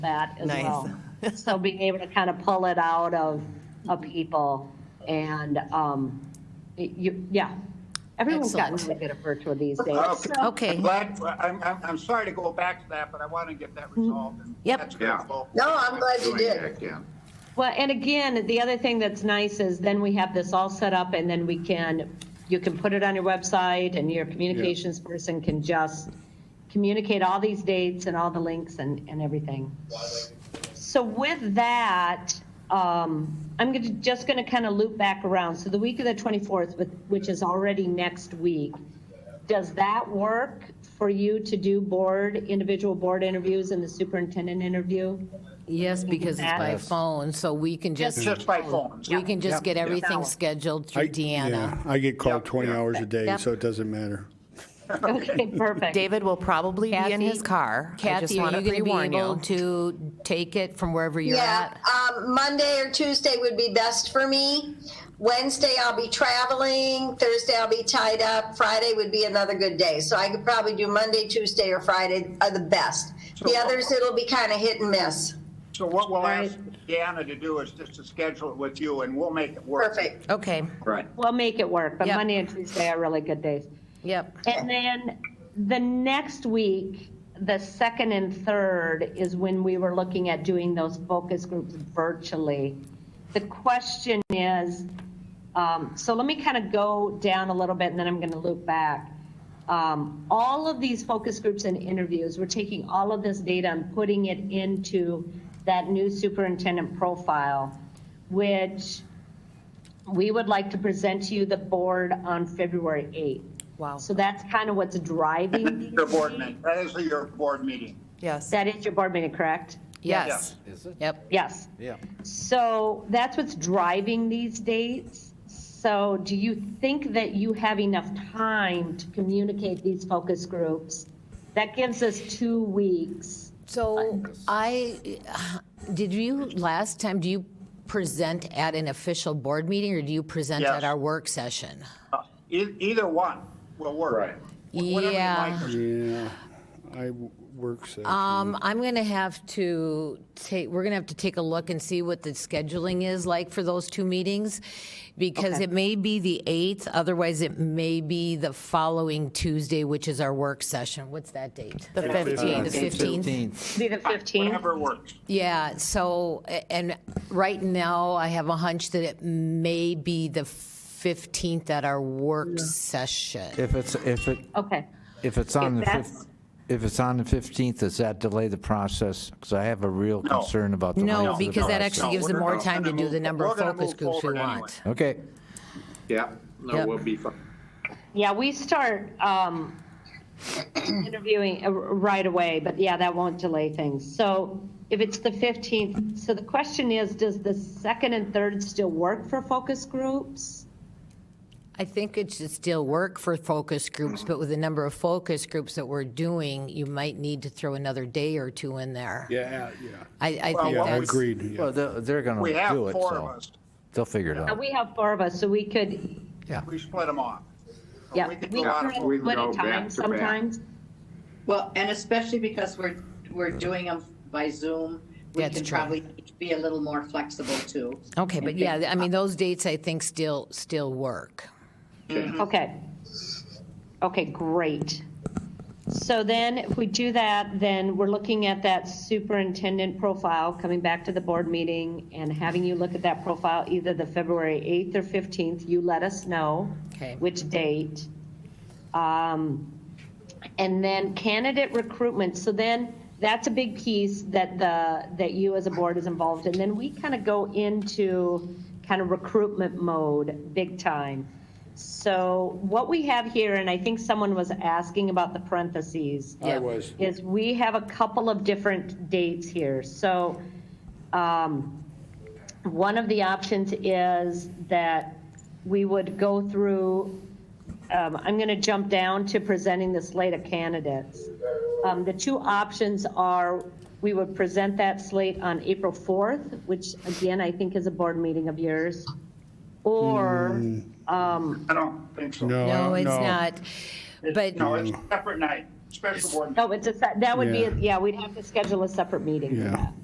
that as Nice. well. So being able to kind of pull it out of, of people and, um, it- you, yeah. Everyone's gotten really Excellent. good at virtual these days. Okay. Glad, I'm, I'm, I'm sorry to go back to that, but I want to get that resolved. and Yep. that's gonna Yeah. go- No, I'm glad you Doing did. that, yeah. Well, and again, the other thing that's nice is then we have this all set up and then we can, you can put it on your website and your communications person can just communicate all these dates and all the links and, and everything. So with that, um, I'm gonna, just gonna kind of loop back around. So the week of the 24th, with- which is already next week, does that work for you to do board, individual board interviews and the superintendent interview? Yes, because it's by phone, so we can just, It's just by phone. we can just get everything Yeah. scheduled I- through Deanna. yeah, I get called 20 hours a day, Yep. so it doesn't matter. Okay, perfect. David will probably be in Kathy- his car. I just Kathy, are want you to going to be pre-warn able you. to take it from wherever you're Yeah, at? um, Monday or Tuesday would be best for me. Wednesday, I'll be traveling. Thursday, I'll be tied up. Friday would be another good day. So I could probably do Monday, Tuesday, or Friday are the best. The others, it'll be kind of hit and miss. So what we'll ask Deanna to do is just to schedule it with you and we'll make it work. Perfect. Okay, Right. We'll make it work, but Yep. Monday and Tuesday are really good days. yep. And then the next week, the second and third is when we were looking at doing those focus groups virtually. The question is, um, so let me kind of go down a little bit and then I'm going to loop back. Um, all of these focus groups and interviews, we're taking all of this data and putting it into that new superintendent profile, which we would like to present to you, the board, on February 8th. Wow. So that's kind of what's driving. these Your board meetings. meeting, that is your board meeting. Yes. That is your board meeting, correct? Yes. Yep. Yes. Yeah. So that's what's driving these dates. So do you think that you have enough time to communicate these focus groups? That gives us two weeks. So I, did you, last time, do you present at an official board meeting or do you present Yes. at our work session? Uh, e- Either one will work. Right. Whatever you Yeah. like. Yeah, I w- work session. Um, I'm going to have to take, we're going to have to take a look and see what the scheduling is like for those two meetings, because it may be the 8th, otherwise it may be the following Tuesday, which is our work session. What's that date? The The 15th. 15th? Be the 15th? Whatever works. Yeah, so, a- and right now, I have a hunch that it may be the 15th at our work session. If it's, if it, Okay. if it's on the that's- fif, if it's on the 15th, does that delay the process? Because I have a real No. concern about the length No, of the because that process. actually gives we're them more not time to gonna do the move- number we're of gonna focus move groups we forward anyway. want. Okay, Yeah, Yep. no, we'll be fine. Yeah, we start um, interviewing uh, right away, but yeah, that won't delay things. So if it's the 15th, so the question is, does the second and third still work for focus groups? I think it should still work for focus groups, but with the number of focus groups that we're doing, you might need to throw another day or two in there. Yeah, yeah. I, I think Well, what we- Yeah, Oh, that's, agreed. yeah. well, they're, they're going We to have do it, four of so us. they'll figure it Uh, out. We have four of us, so we could, We split them off. So yeah, we we could could do a lot of we split go a time back to back. sometimes. Well, and especially because we're, we're doing them by Zoom, we That's can true. probably be a little more flexible too. okay, but yeah, I mean, those dates I think still, still work. Okay. Okay, great. So then, if we do that, then we're looking at that superintendent profile, coming back to the board meeting and having you look at that profile, either the February 8th or 15th, you let us know Okay. which date. Um, And then candidate recruitment, so then, that's a big piece that the, that you as a board is involved in. Then we kind of go into kind of recruitment mode, big time. So what we have here, and I think someone was asking about the parentheses. I was. Is we have a couple of different dates here. So um, one of the options is that we would go through, um, I'm going to jump down to presenting the slate of candidates. Um, The two options are, we would present that slate on April 4th, which again, I think is a board meeting of yours, or I don't think so. No, No, it's no. not, but. No, it's a separate night. special board meeting. No, oh, it's a, se- that would be, Yeah. yeah, we'd have to schedule a separate meeting for Yeah. that.